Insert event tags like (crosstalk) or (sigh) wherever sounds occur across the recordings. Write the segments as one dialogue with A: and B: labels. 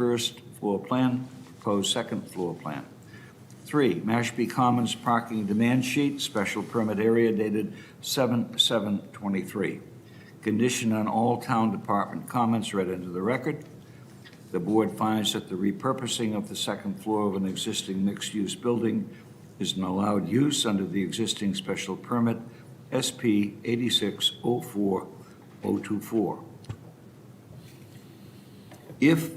A: first floor plan, proposed second floor plan. Three, Mashpee Commons parking demand sheet, special permit area dated 7/7/23. Condition on all town department comments read into the record. The board finds that the repurposing of the second floor of an existing mixed-use building is an allowed use under the existing special permit SP 8604024. If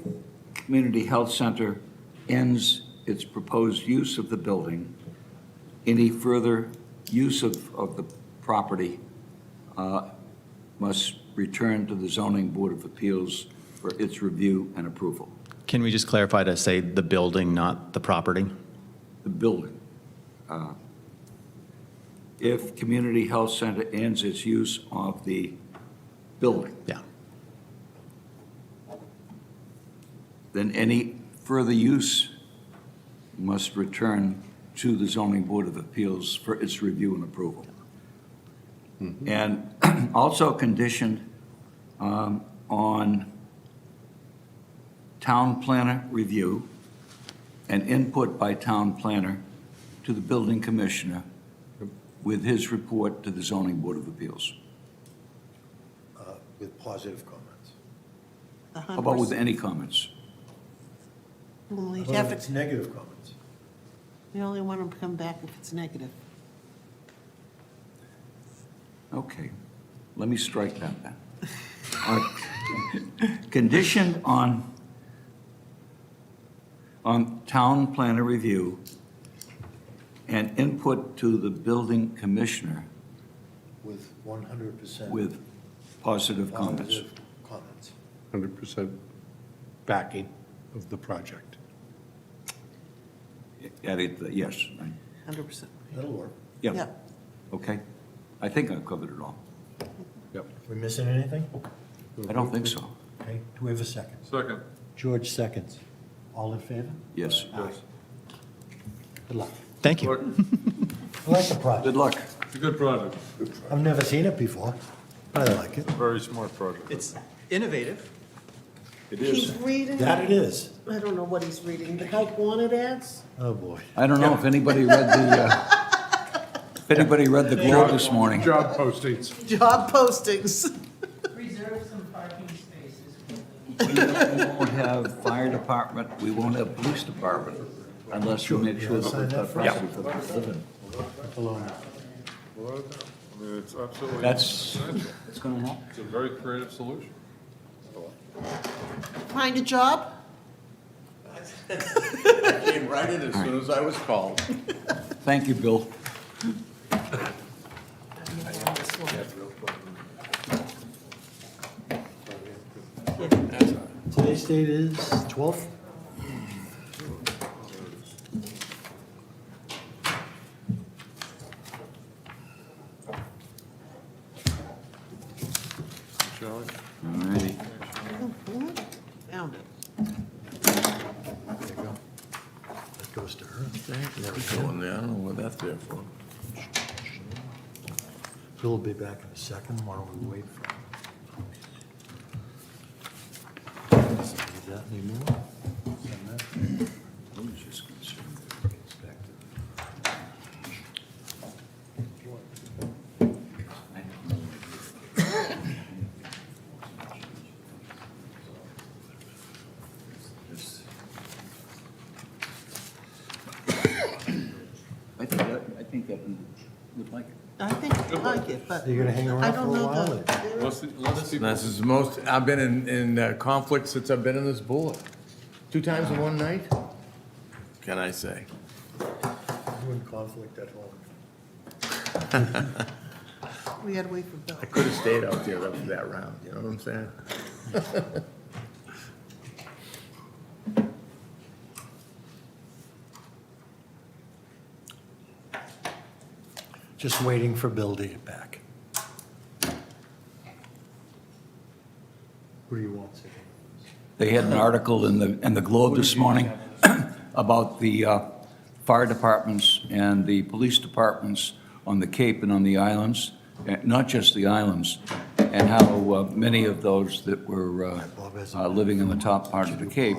A: Community Health Center ends its proposed use of the building, any further use of, of the property uh, must return to the zoning board of appeals for its review and approval.
B: Can we just clarify to say the building, not the property?
A: The building. uh, If Community Health Center ends its use of the building,
B: Yeah.
A: then any further use must return to the zoning board of appeals for its review and approval. And (clears throat) also conditioned um, on town planner review and input by town planner to the building commissioner with his report to the zoning board of appeals.
C: uh, with positive comments.
D: The
A: How about with
D: Humpers,
A: any comments?
D: well,
C: How
D: you'd
C: about if
D: have
C: it's
D: to,
C: negative comments?
D: we only want them to come back if it's negative.
A: Okay, let me strike that then. Uh, Conditioned on, on town planner review and input to the building commissioner
C: With one hundred percent.
A: with positive comments.
C: Positive comments.
E: hundred percent backing of the project.
A: Added, the- yes, I-
D: Hundred percent.
C: That'll work.
A: yeah, okay. I think I've covered it all.
C: We missing anything?
A: I don't think so.
C: Okay, do we have a second?
F: Second.
C: George seconds. All in favor?
A: Yes.
C: Aye. Good luck.
B: Thank you.
C: I like the
A: Good
C: project.
A: luck.
F: It's a good project.
C: I've never seen it before, but I like it.
F: Very smart project.
B: It's innovative.
A: It
D: He's reading,
C: That
D: I
C: it is.
D: don't know what he's reading, the help wanted ads?
C: Oh, boy.
A: I don't know if anybody read the, uh, if anybody read the Globe this morning.
E: Job postings.
D: Job postings.
G: Reserve some parking spaces for the
A: We won't have fire department, we won't have police department unless we make sure that we've got property for them to live in.
C: Alone.
F: Well, I mean, it's absolutely.
A: That's,
F: essential.
A: it's gonna happen.
F: It's a very creative solution.
D: Find a job?
H: came right in as soon as I was called.
A: Thank you, Bill.
C: Today's date is twelfth?
F: Shall
A: All righty.
D: Found it.
C: There you go. That goes to her.
H: There we go in there. I don't know what that's there for.
C: Bill will be back in a second. Why don't we wait for him? Doesn't need that anymore. Send that. It's back to-
A: I think that, I think that would like it.
D: I think I like it, but
C: You're gonna hang
D: I
C: around for a
D: don't know
C: while?
D: the,
F: we? Let's, let's people,
H: This is the most, I've been in, in uh, conflict since I've been in this board. Two times in one night? Can I say?
C: or You in conflict at home.
D: we gotta wait for Bill.
H: I could have stayed out there up for that round, you know what I'm saying?
C: Just waiting for Bill to get back. Who do you want second?
A: They had an article in the, in the Globe this morning (clears throat) about the uh, fire departments and the police departments on the Cape and on the islands, eh, not just the islands, and how uh, many of those that were uh,
C: Bob has a-
A: uh, living in the top part of the Cape